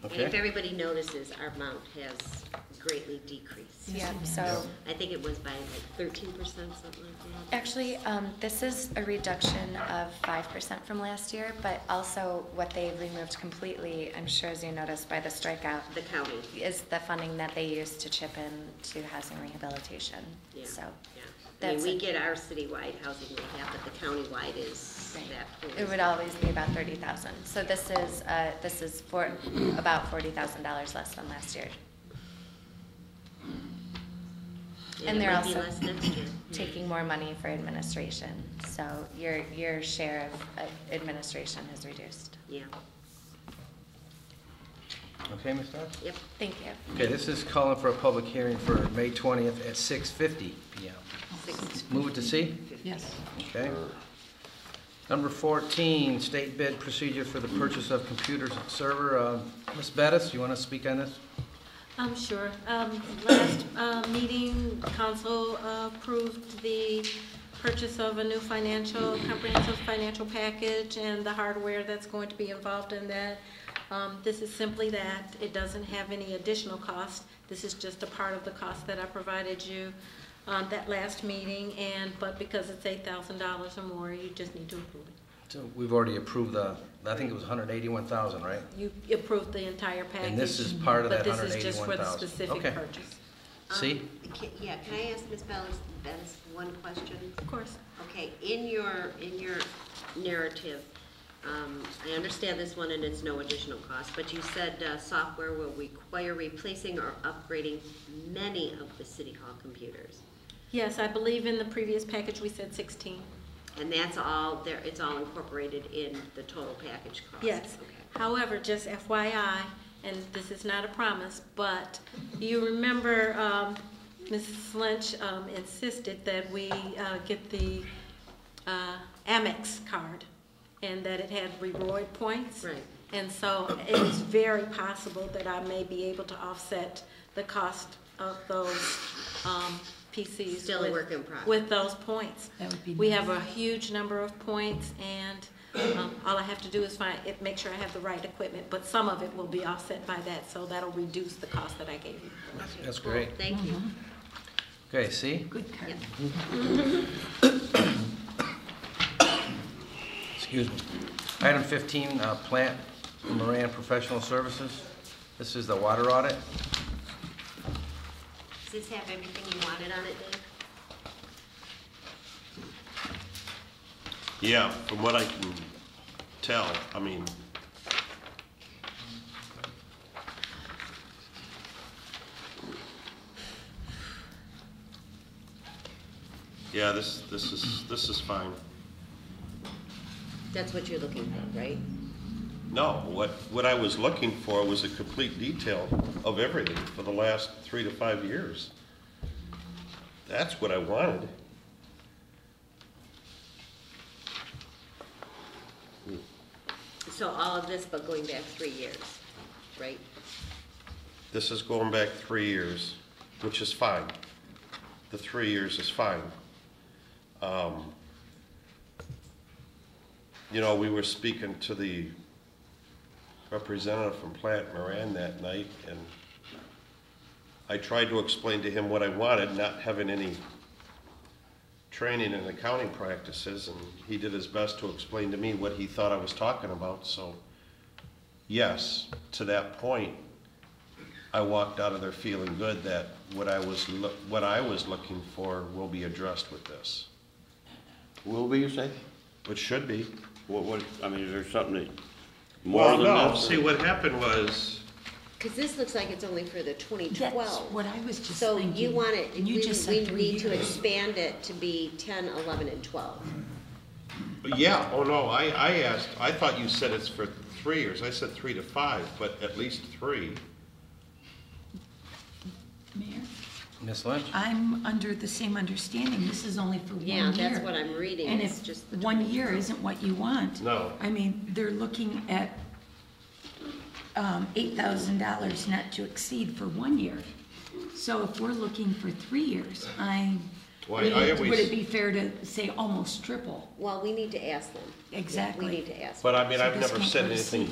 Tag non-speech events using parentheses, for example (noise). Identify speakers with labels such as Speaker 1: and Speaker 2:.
Speaker 1: And if
Speaker 2: Okay.
Speaker 1: everybody notices, our amount has greatly decreased.
Speaker 3: Yeah,
Speaker 2: Yeah.
Speaker 3: so,
Speaker 1: I think it was by like thirteen percent, something like that.
Speaker 3: actually, um, this is a reduction of five percent from last year, but also what they've removed completely, I'm sure as you noticed by the strikeout,
Speaker 1: The county,
Speaker 3: is the funding that they use to chip in to housing rehabilitation,
Speaker 1: yeah,
Speaker 3: so.
Speaker 1: yeah. I mean,
Speaker 3: that's
Speaker 1: we
Speaker 3: it.
Speaker 1: get our citywide housing we have, but the countywide is
Speaker 3: Right.
Speaker 1: that point.
Speaker 3: It would always be about thirty thousand, so this is, uh, this is for, about forty thousand dollars less than last year, and
Speaker 1: it
Speaker 3: they're
Speaker 1: might be
Speaker 3: also
Speaker 1: less next year.
Speaker 3: (clears throat) taking more money for administration, so your, your share of of administration has reduced.
Speaker 1: Yeah,
Speaker 2: Okay, Ms. Dodds?
Speaker 1: yep.
Speaker 3: Thank you.
Speaker 2: Okay, this is calling for a public hearing for May 20th at 6:50 PM.
Speaker 1: Six-
Speaker 2: Move it to C?
Speaker 4: Yes.
Speaker 2: Okay. Number 14, state bid procedure for the purchase of computers and server. Uh, Ms. Bettis, you want to speak on this?
Speaker 5: I'm sure. Um, Last uh, meeting, council uh, approved the purchase of a new financial, comprehensive financial package and the hardware that's going to be involved in that. Um, This is simply that. It doesn't have any additional cost. This is just a part of the cost that I provided you um, that last meeting, and, but because it's $8,000 or more, you just need to approve it.
Speaker 2: So We've already approved the, I think it was 181,000, right?
Speaker 5: You approved the entire package.
Speaker 2: And this is part of that
Speaker 5: But this is just for the
Speaker 2: 181,000.
Speaker 5: specific
Speaker 2: Okay.
Speaker 5: purchase.
Speaker 1: Um,
Speaker 2: C?
Speaker 1: ca- Yeah, can I ask Ms. Bellis, Bettis one question?
Speaker 5: Of course.
Speaker 1: Okay, in your, in your narrative, um, I understand this one and it's no additional cost, but you said uh, software will require replacing or upgrading many of the city hall computers.
Speaker 5: Yes, I believe in the previous package, we said 16.
Speaker 1: And that's all, there, it's all incorporated in the total package cost?
Speaker 5: Yes.
Speaker 1: Okay.
Speaker 5: However, just FYI, and this is not a promise, but you remember um, Mrs. Lynch um, insisted that we uh, get the uh, Amex card and that it had reward points.
Speaker 1: Right.
Speaker 5: And so it is very possible that I may be able to offset the cost of those um, PCs.
Speaker 1: Still a
Speaker 5: with-
Speaker 1: work in progress.
Speaker 5: With those points.
Speaker 4: That would be
Speaker 5: We have a huge number of points, and um, all I have to do is find, it- make sure I have the right equipment, but some of it will be offset by that, so that'll reduce the cost that I gave you.
Speaker 2: That's
Speaker 1: Cool,
Speaker 2: great.
Speaker 1: Thank you.
Speaker 2: Okay, C?
Speaker 4: Good card.
Speaker 2: (coughs) Excuse me. Item 15, uh, Plant Moran Professional Services. This is the water audit.
Speaker 1: Does this have everything you wanted on it, Dave?
Speaker 6: Yeah, from what I can tell, I mean. Yeah, this, this is, this is fine.
Speaker 1: That's what you're looking for, right?
Speaker 6: No, what, what I was looking for was a complete detail of everything for the last three to five years. That's what I wanted.
Speaker 1: So all of this, but going back three years, right?
Speaker 6: This is going back three years, which is fine. The three years is fine. Um, You know, we were speaking to the representative from Plant Moran that night, and I tried to explain to him what I wanted, not having any training in accounting practices, and he did his best to explain to me what he thought I was talking about, so yes, to that point, I walked out of there feeling good that what I was, loo- what I was looking for will be addressed with this,
Speaker 7: Will be, you say?
Speaker 6: which should be.
Speaker 7: What, what, I mean, is there something that, more
Speaker 6: Well,
Speaker 7: than
Speaker 6: no,
Speaker 7: that?
Speaker 6: see, what happened was,
Speaker 1: Because this looks like it's only for the 2012.
Speaker 4: That's what I was just
Speaker 1: So you
Speaker 4: thinking.
Speaker 1: want it,
Speaker 4: And you
Speaker 1: we,
Speaker 4: just
Speaker 1: we
Speaker 4: said three
Speaker 1: need to
Speaker 4: years.
Speaker 1: expand it to be 10, 11, and 12.
Speaker 6: yeah, oh no, I, I asked, I thought you said it's for three years, I said three to five, but at least three.
Speaker 4: Mayor,
Speaker 2: Ms. Lynch?
Speaker 4: I'm under the same understanding, this is only for one
Speaker 1: Yeah,
Speaker 4: year.
Speaker 1: that's what I'm reading,
Speaker 4: And
Speaker 1: it's
Speaker 4: if
Speaker 1: just the
Speaker 4: one year isn't what you want.
Speaker 6: No.
Speaker 4: I mean, they're looking at um, $8,000 not to exceed for one year. So if we're looking for three years, I,
Speaker 6: Why, I
Speaker 4: would
Speaker 6: always-
Speaker 4: would it be fair to say almost triple?
Speaker 1: Well, we need to ask them.
Speaker 4: Exactly.
Speaker 1: We need to ask them.
Speaker 6: But I mean,
Speaker 4: So
Speaker 6: I've
Speaker 4: this
Speaker 6: never
Speaker 4: won't
Speaker 6: said
Speaker 4: proceed.
Speaker 6: anything